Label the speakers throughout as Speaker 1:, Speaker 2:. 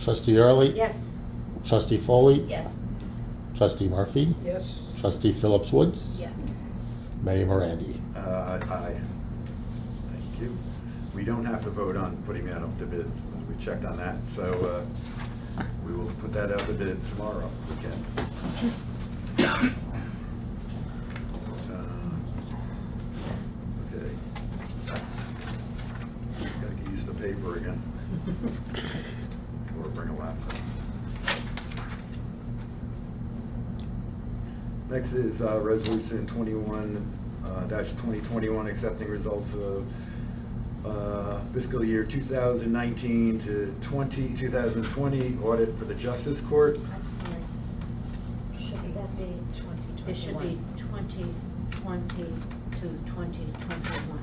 Speaker 1: Trustee Early?
Speaker 2: Yes.
Speaker 1: Trustee Foley?
Speaker 2: Yes.
Speaker 1: Trustee Murphy?
Speaker 3: Yes.
Speaker 1: Trustee Phillips Woods?
Speaker 2: Yes.
Speaker 1: Mayor Morandi?
Speaker 4: Uh, Aye. Thank you. We don't have to vote on putting that up to bid. We checked on that, so uh, we will put that up to bid tomorrow if we can. Uh, Okay. Gotta get used to paper again. Or bring a laptop. Next is uh, Resolution uh, 21-2021, accepting results of uh, fiscal year 2019 to 20, 2020 audit for the Justice Court.
Speaker 2: I'm sorry. Should that be, it should be
Speaker 3: 2021.
Speaker 2: 2020 to 2021.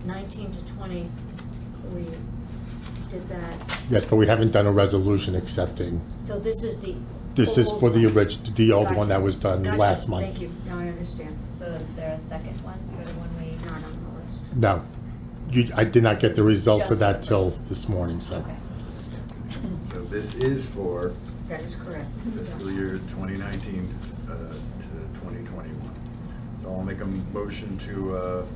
Speaker 2: The 19 to 20, we did that,
Speaker 1: Yes, but we haven't done a resolution accepting.
Speaker 2: so this is the.
Speaker 1: This is
Speaker 2: old
Speaker 1: for the
Speaker 2: one.
Speaker 1: orig, the old
Speaker 2: Gotcha.
Speaker 1: one that was done
Speaker 2: Gotcha.
Speaker 1: last month.
Speaker 2: Thank you, now I understand.
Speaker 5: So is there a second one for the one
Speaker 2: It's
Speaker 5: we?
Speaker 2: not on the list.
Speaker 1: No. You, I did not get the results of
Speaker 5: Just
Speaker 1: that
Speaker 5: the
Speaker 1: till
Speaker 5: first.
Speaker 1: this morning, so.
Speaker 5: Okay.
Speaker 4: So this is for
Speaker 2: That is correct.
Speaker 4: fiscal year 2019 uh, to 2021. So I'll make a motion to uh,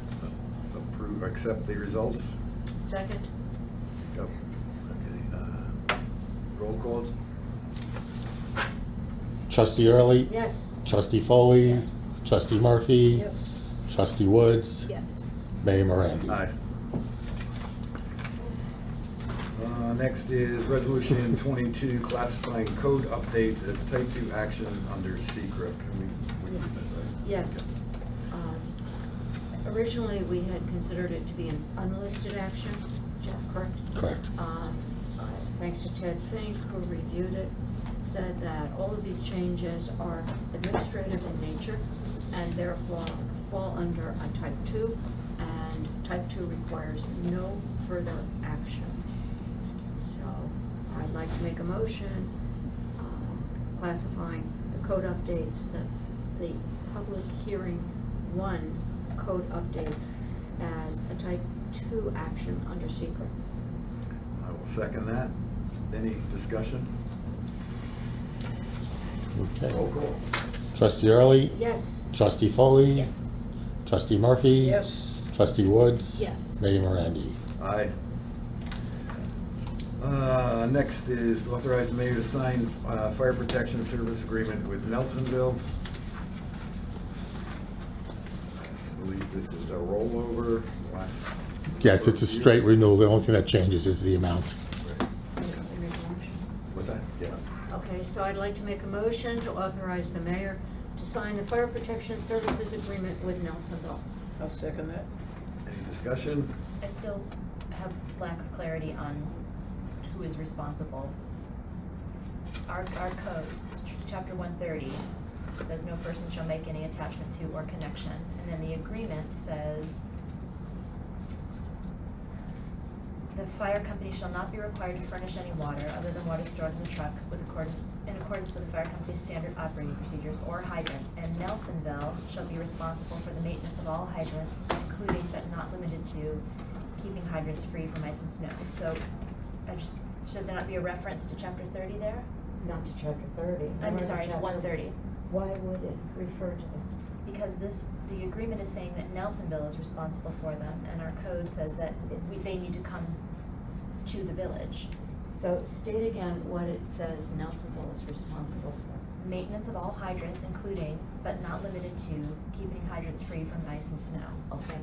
Speaker 4: approve, accept the results.
Speaker 2: Second,
Speaker 4: Yep. Okay. uh, Roll calls?
Speaker 1: Trustee Early?
Speaker 2: yes.
Speaker 1: Trustee Foley?
Speaker 5: Yes.
Speaker 1: Trustee Murphy?
Speaker 3: Yes.
Speaker 1: Trustee Woods?
Speaker 5: Yes.
Speaker 1: Mayor Morandi?
Speaker 4: Aye. Uh, Next is Resolution 22, classifying code updates as type 2 action under secret. Can we, we do that, right?
Speaker 2: Yes.
Speaker 4: Okay.
Speaker 2: Um, Originally, we had considered it to be an unlisted action, Jeff, correct?
Speaker 1: Correct.
Speaker 2: Um, uh, Thanks to Ted Fink, who reviewed it, said that all of these changes are administrative in nature and therefore fall under a type two, and type two requires no further action. So I'd like to make a motion um, classifying the code updates, the, the public hearing one code updates as a type two action under secret.
Speaker 4: I will second that. Any discussion? Roll
Speaker 1: Okay.
Speaker 4: call.
Speaker 1: Trustee Early?
Speaker 2: Yes,
Speaker 1: Trustee Foley?
Speaker 5: Yes.
Speaker 1: Trustee Murphy?
Speaker 3: Yes.
Speaker 1: Trustee Woods?
Speaker 5: Yes.
Speaker 1: Mayor Morandi?
Speaker 4: Aye. Uh, Next is authorize the mayor to sign uh, fire protection service agreement with Nelsonville. I believe this is a rollover. Last-
Speaker 1: Yes, it's a straight renewal. The only thing that changes is the amount.
Speaker 2: Does somebody make a motion?
Speaker 4: What's that? Yeah.
Speaker 2: Okay, so I'd like to make a motion to authorize the mayor to sign the fire protection services agreement with Nelsonville.
Speaker 3: I'll second that.
Speaker 4: Any discussion?
Speaker 5: I still have lack of clarity on who is responsible. Our, our code, ch- chapter one thirty, says no person shall make any attachment to or connection. And then the agreement says the fire company shall not be required to furnish any water other than water stored in the truck with accordance, in accordance with the fire company's standard operating procedures or hydrants. And Nelsonville shall be responsible for the maintenance of all hydrants, including but not limited to keeping hydrants free from ice and snow. So, I just, should there not be a reference to chapter thirty there?
Speaker 2: Not to chapter thirty.
Speaker 5: I'm sorry, to one thirty.
Speaker 2: Why would it refer to that?
Speaker 5: Because this, the agreement is saying that Nelsonville is responsible for them, and our code says that it- we, they need to come to the village.
Speaker 2: So state again what it says Nelsonville is responsible for.
Speaker 5: Maintenance of all hydrants, including but not limited to keeping hydrants free from ice and snow.
Speaker 2: Okay,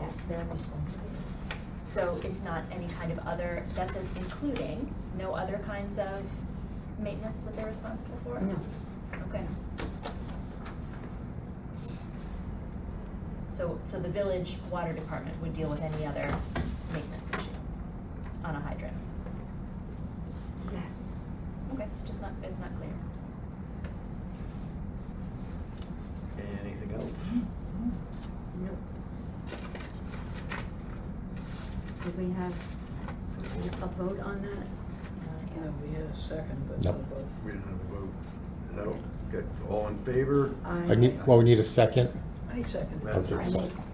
Speaker 2: that's their responsibility.
Speaker 5: So it's not any kind of other, that says including, no other kinds of maintenance that they're responsible for?
Speaker 2: No.
Speaker 5: Okay. So, so the village water department would deal with any other maintenance issue on a hydrant?
Speaker 2: Yes.
Speaker 5: Okay, it's just not, it's not clear.
Speaker 4: Anything else?
Speaker 2: Nope. Did we have a vote on that?
Speaker 5: Uh,
Speaker 3: No, we had a second, but
Speaker 1: No.
Speaker 3: no vote.
Speaker 4: We didn't have a vote. Is that all? Good. All in favor?
Speaker 1: I need, well, we need a second.
Speaker 3: I second
Speaker 4: Madam
Speaker 3: it.
Speaker 4: Secretary.
Speaker 2: I